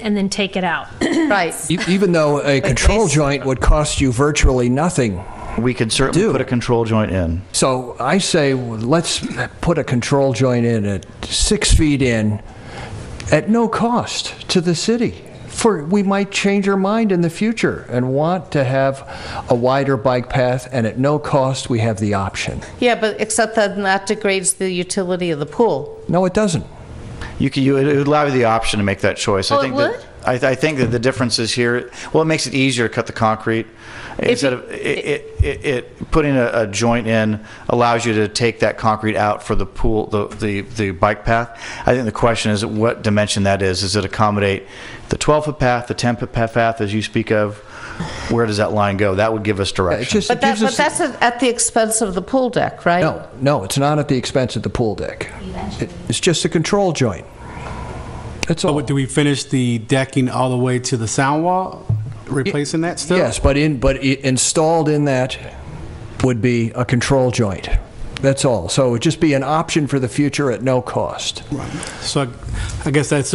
and then take it out. Right. E- Even though a control base- joint would cost you virtually nothing. We could certainly Do. put a control joint in. So I say, let's put a control joint in at six feet in at no cost to the city. For, we might change our mind in the future and want to have a wider bike path, and at no cost, we have the option. Yeah, but except that that degrades the utility of the pool. No, it doesn't. You could, you, it would allow you the option to make that choice. Oh, I it think would? that I, I think that the difference is here. Well, it makes it easier to cut the concrete instead you- of it. It, it, it putting a, a joint in allows you to take that concrete out for the pool, the, the the bike path. I think the question is what dimension that is. Does it accommodate the 12 foot path, the 10 foot path, as you speak of? Where does that line go? That would give us It direction. just But that, gives but us. that's at at the expense of the pool deck, right? No, no, it's not at the expense of the pool deck. It's just a control joint. That's So all. what, do we finish the decking all the way to the sound wall, replacing that still? Yes, but in, but i- installed in that would be a control joint. That's all. So it would just be an option for the future at no cost. So I- I guess that's